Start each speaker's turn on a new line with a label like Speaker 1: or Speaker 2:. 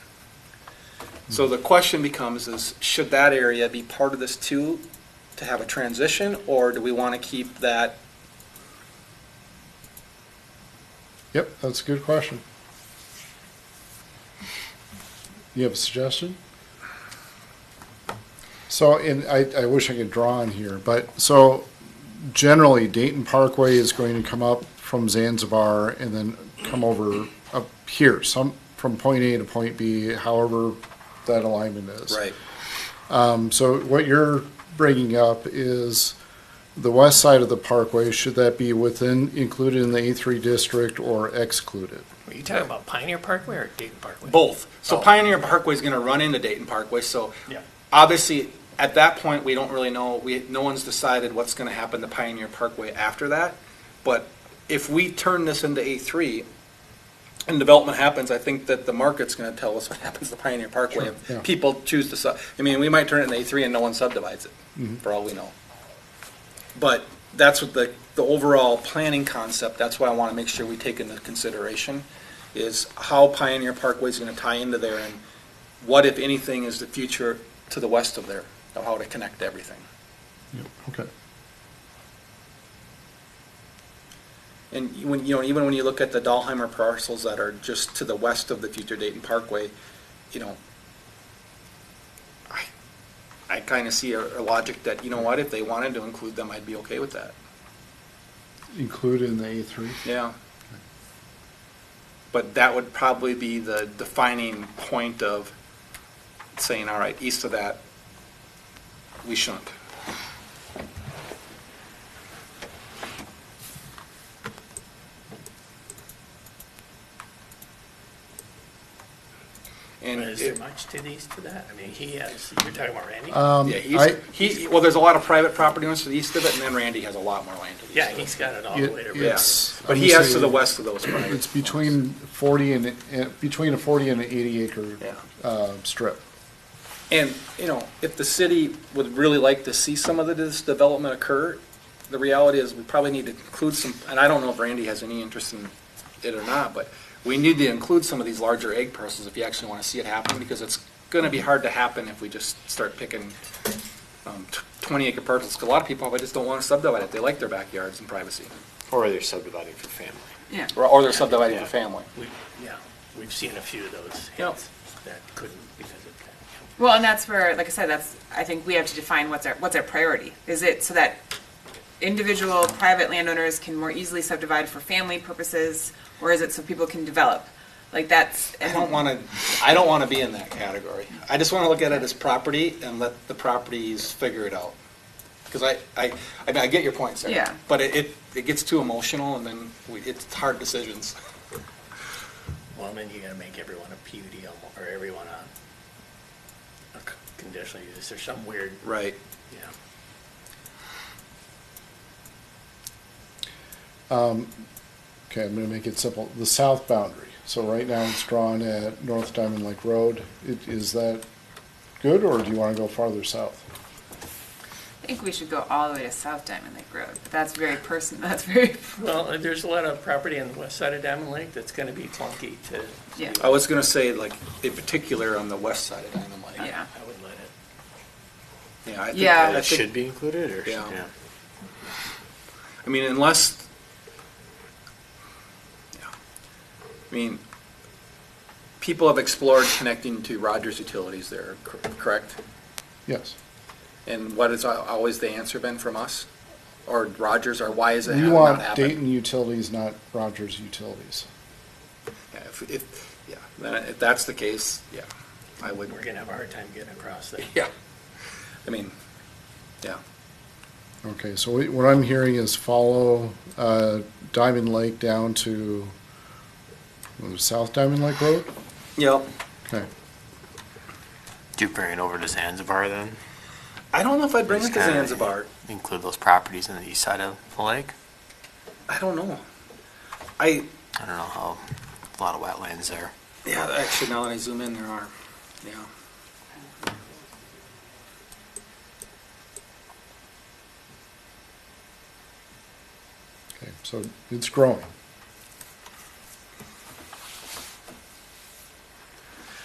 Speaker 1: So the question becomes is, should that area be part of this too, to have a transition, or do we want to keep that?
Speaker 2: Yep, that's a good question. You have a suggestion? So, and I, I wish I could draw on here, but so generally Dayton Parkway is going to come up from Zanzibar and then come over up here, some, from point A to point B, however that alignment is. Um, so what you're bringing up is the west side of the parkway, should that be within, included in the A3 district or excluded?
Speaker 3: Were you talking about Pioneer Parkway or Dayton Parkway?
Speaker 1: Both. So
Speaker 3: Oh.
Speaker 1: Pioneer Parkway is going to run into Dayton Parkway, so
Speaker 3: Yeah.
Speaker 1: obviously, at that point, we don't really know, we, no one's decided what's going to happen to Pioneer Parkway after that. But if we turn this into A3 and development happens, I think that the market's going to tell us what happens to Pioneer Parkway.
Speaker 2: Sure, yeah.
Speaker 1: If people choose to, sub- I mean, we might turn it into A3 and no one subdivides
Speaker 2: Mm-hmm.
Speaker 1: it, for all we know. But that's what the, the overall planning concept, that's what I want to make sure we take into consideration, is how Pioneer Parkway is going to tie into there and what, if anything, is the future to the west of there, of how to connect everything.
Speaker 2: Yep, okay.
Speaker 1: And when, you know, even when you look at the Dahlheimer parcels that are just to the west of the future Dayton Parkway, you know, I, I kind of see a, a logic that, you know what, if they wanted to include them, I'd be okay with that.
Speaker 2: Included in the A3?
Speaker 1: Yeah. But that would probably be the defining point of saying, all right, east of that, we shouldn't. And
Speaker 3: Is there
Speaker 1: it-
Speaker 3: much to the east of that? I mean, he has, you're talking about Randy?
Speaker 2: Um,
Speaker 1: yeah,
Speaker 2: I,
Speaker 1: he's, he, well, there's a lot of private property owners to the east of it, and then Randy has a lot more land to the east
Speaker 3: Yeah,
Speaker 1: of it.
Speaker 3: he's got it all the way to
Speaker 2: it-
Speaker 3: Randy.
Speaker 2: it's.
Speaker 1: But he
Speaker 2: I'm
Speaker 1: has to the
Speaker 2: saying
Speaker 1: west of those private.
Speaker 2: It's between forty and, and- between a forty and an eighty acre,
Speaker 1: Yeah.
Speaker 2: uh, strip.
Speaker 1: And, you know, if the city would really like to see some of this development occur, the reality is we probably need to include some, and I don't know if Randy has any interest in it or not, but we need to include some of these larger egg parcels if you actually want to see it happen, because it's going to be hard to happen if we just start picking um, tw- 20 acre parcels, 'Cause a lot of people, probably just don't want to subdivide it. They like their backyards and privacy,
Speaker 4: Or they're subdividing for family.
Speaker 3: Yeah.
Speaker 1: or- or they're subdividing for
Speaker 4: Yeah.
Speaker 1: family.
Speaker 3: We- Yeah, we've seen a few of those
Speaker 1: Yep.
Speaker 3: hits that couldn't because of that.
Speaker 5: Well, and that's where, like I said, that's, I think we have to define what's our, what's our priority. Is it so that individual private landowners can more easily subdivide for family purposes? Or is it so people can develop? Like that's,
Speaker 1: I don't
Speaker 5: and
Speaker 1: want to, I don't want to be in that category. I just want to look at it as property and let the properties figure it out. Because I, I, I mean, I get your point, Sarah.
Speaker 5: Yeah.
Speaker 1: But it, it- it gets too emotional and then we, it's hard decisions.
Speaker 3: Well, then you gotta make everyone a PUD almo- or everyone a, a c- conditional use or some weird,
Speaker 1: Right.
Speaker 3: yeah.
Speaker 2: Okay, I'm gonna make it simple. The south boundary. So right now it's drawn at North Diamond Lake Road. It, is that good or do you wanna go farther south?
Speaker 5: I think we should go all the way to South Diamond Lake Road. But that's very personal, that's very,
Speaker 3: Well, uh, there's a lot of property on the west side of Diamond Lake that's gonna be clunky to.
Speaker 5: yeah,
Speaker 1: I was going to say like, in particular on the west side of Diamond Lake.
Speaker 5: yeah.
Speaker 3: I would let it.
Speaker 1: Yeah. I think-
Speaker 5: Yeah.
Speaker 1: I
Speaker 4: That
Speaker 1: think-
Speaker 4: should be included, or?
Speaker 1: Yeah. I mean, unless, yeah. I mean, people have explored connecting to Rogers Utilities there, cor- correct?
Speaker 2: Yes.
Speaker 1: And what has al- always the answer been from us? Or Rogers, or why is it
Speaker 2: We
Speaker 1: ha- not
Speaker 2: want
Speaker 1: happening?
Speaker 2: Dayton Utilities, not Rogers Utilities.
Speaker 1: Yeah, if, if, yeah, then if that's the case, yeah, I would,
Speaker 3: We're gonna have a hard time getting across that.
Speaker 1: yeah. I mean, yeah,
Speaker 2: Okay, so we- what I'm hearing is follow uh, Diamond Lake down to uh, South Diamond Lake Road?
Speaker 1: yep.
Speaker 2: Okay.
Speaker 4: Do bring it over to Zanzibar then?
Speaker 1: I don't know if I'd bring it
Speaker 4: It's
Speaker 1: to
Speaker 4: kinda-
Speaker 1: Zanzibar.
Speaker 4: Include those properties on the east side of the lake?
Speaker 1: I don't know. I,
Speaker 4: I don't know how, a lot of wetlands there.
Speaker 1: yeah, actually, now that I zoom in, there are, yeah.
Speaker 2: Okay, so it's growing.